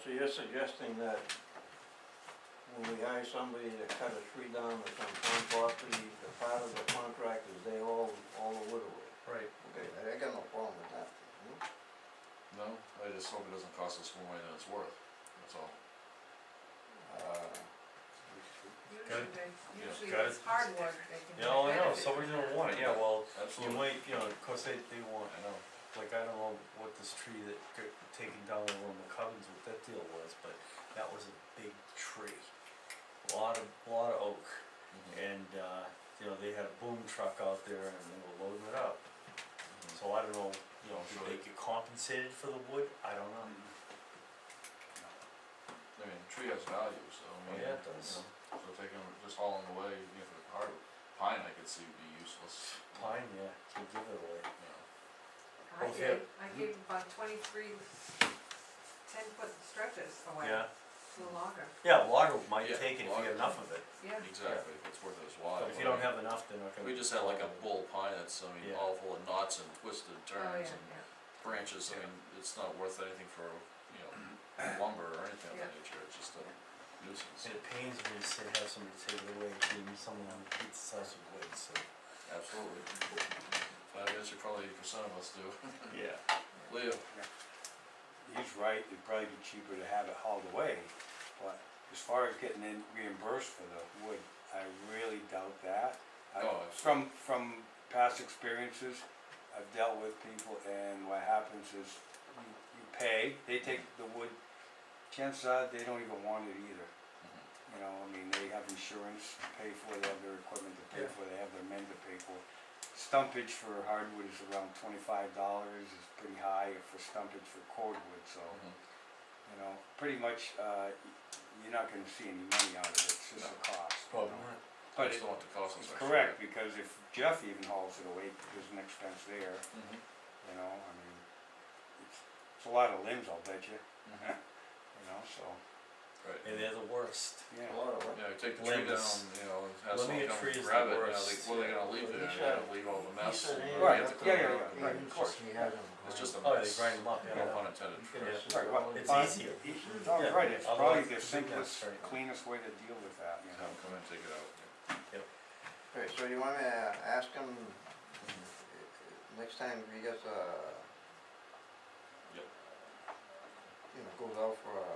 so you're suggesting that when we hire somebody to cut a tree down that's on town property, the part of the contract is they all, all the wood away? Hmm? Right. Okay, I- I got no problem with that. no? No, I just hope it doesn't cost us more money than it's worth, that's all. Uh, Good. Yeah. Usually, they- usually Got if it's it. hardwood, they can. Yeah, oh, I know, benefit. somebody's gonna want it, yeah, well, you Absolutely. might, you know, cause they, they want, I know, like, I don't know what this tree that got taken down over in the Covens, what that deal was, but that was a big tree. Lot of, lot of oak, mhm, and, uh, you know, they had a boom truck out there and they were loading it up, mhm. so I don't know, you know, Sure. did they get compensated for the wood, I don't know. Mm-hmm. I mean, the tree has value, so I mean. Oh, Yeah, it you does. know, So taking, just hauling away, you know, for the hard, pine I could see would be useless. you know, Pine, yeah, could give it away. you know. I Okay. gave, I gave about twenty-three ten-foot stretches away, Yeah, a little longer, yeah, logger might Yeah, take it if you logger. get enough of it, yeah. Oh, Exactly, if it's worth its while. but if you I don't mean, have enough, they're not gonna. We just had like a bull pine that's, I mean, Yeah. all full of knots and twisted Oh, yeah, turns and yeah. branches, I mean, it's not worth anything for, you know, lumber or anything of that nature, it's just a nuisance, And it pains me to say have somebody take it away, being someone on the pizza house would wait, so. absolutely. But I guess you probably percent of us do. Yeah. Leo, he's right, it'd probably be cheaper to have it hauled away, but as far as getting in reimbursed for the wood, I really doubt that. I- Oh, absolutely. From, from past experiences, I've dealt with people and what happens is you, you pay, they take the wood, chances are they don't even want it either. You know, I mean, they have insurance to pay for, they have their equipment to pay Yeah. for, they have their men to pay for. Stumpage for hardwood is around twenty-five dollars, is pretty high for stumpage for cordwood, so, Mhm. you know, pretty much, uh, you're not gonna see any money out of it, it's just a cost. you Probably know. not. I But just it- don't want the cost us it's extra. correct, because if Jeff even hauls it away, there's an expense there, Mhm, you know, I mean, it's, it's a lot of limbs, I'll bet you, mhm, you know, so, Right, And they're the worst. yeah. A lot of you know, you take the tree down, Limbs. you know, and have Lemme a someone come tree is the grab it, you know, worst. like, what are they gonna leave But he there, you know, said- leave all the He mess. said, and hey, you Right, that's the- have to clean it yeah, yeah, up. yeah, right. Of course, he has them. It's just a Oh, they mess, grind them up, Yeah. yeah. no pun intended, You for can Yeah. just- Sorry, what? It's Fine. easier. It's all Yeah, right, it's otherwise probably it's a the big simplest, mess, right. cleanest way to deal with that, you have know. them come in, take it out. Okay, so you want me to ask him, next time he gets uh, a. Yep. You know, goes out for a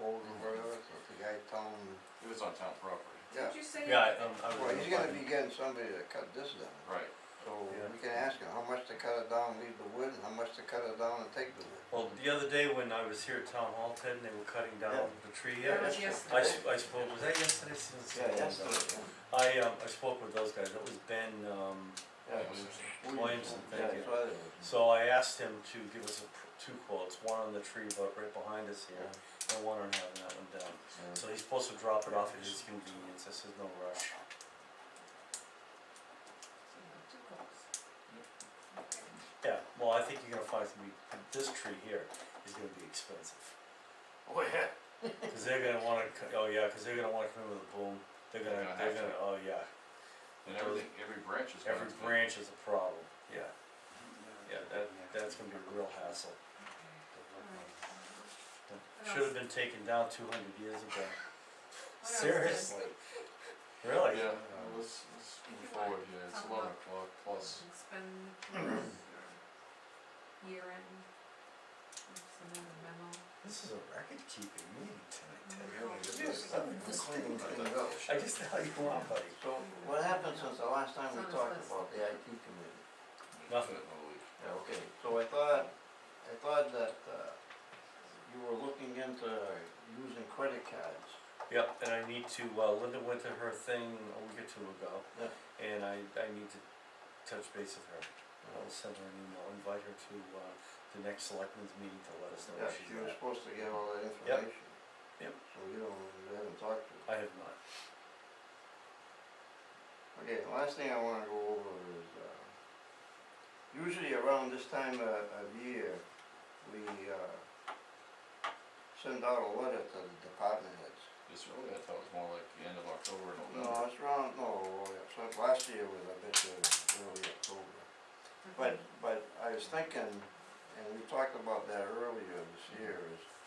quote Mm-hmm. or whatever, so if the guy tell him, If it's on town property, yeah, Did you say? Yeah, I, um, I well, was. he's gonna be getting somebody to cut this down. right, So Yeah. we can ask him how much to cut it down, leave the wood, and how much to cut it down and take the wood. Well, the other day when I was here at Town Hall, Ted, and they were cutting down the tree, That yeah. was yesterday. I sp- I spoke, was that yesterday? Since it's been a long time. I, um, I spoke with those guys, that was Ben, um, Yeah, Williamson, thank you. Yeah, so So I asked him to give us a, pr- two quotes, one on the tree about right behind us here, and one on having that one down. So he's supposed to drop it off at his convenience, this is no rush. Two holes. Okay. Yeah, well, I think you're gonna find it's gonna be, this tree here is gonna be expensive. Oh, yeah. Cause they're gonna wanna, co- oh yeah, cause they're gonna wanna come in with a boom, they're They're gonna, gonna they're have gonna, oh yeah, and everything, every branch is. gonna every have to be- branch is a problem, yeah, yeah, that, that's gonna be a real hassle. What Should've been taken down two hundred years ago, What else seriously, is really? Yeah, uh, let's, let's move You want- forward here, it's talk eleven about- o'clock plus, It's been year end. Some other memo. This is a record keeping meeting tonight, Ted. I I guess the hell you want, buddy. So what happened since the last time we talked about the IT committee? Nothing. Yeah, okay, so I thought, I thought that, uh, you were looking into using credit cards. Yep, and I need to, uh, Linda went to her thing a week or two ago. Yeah. And I, I need to touch base with her. I'll send her an email, invite her to, uh, the next selectmen's meeting to let us know Yeah, where she's she was at. supposed to get all that information. Yep. So you don't, you haven't talked to her. I have not. Okay, the last thing I wanna go over is, uh, usually around this time of, of year, we, uh, send out a letter to the department heads. It's really, I thought it was more like the end of October, No, November. it's around, no, it's like last year was, I bet you, early October. But, but I was thinking, and we talked about that earlier this year, is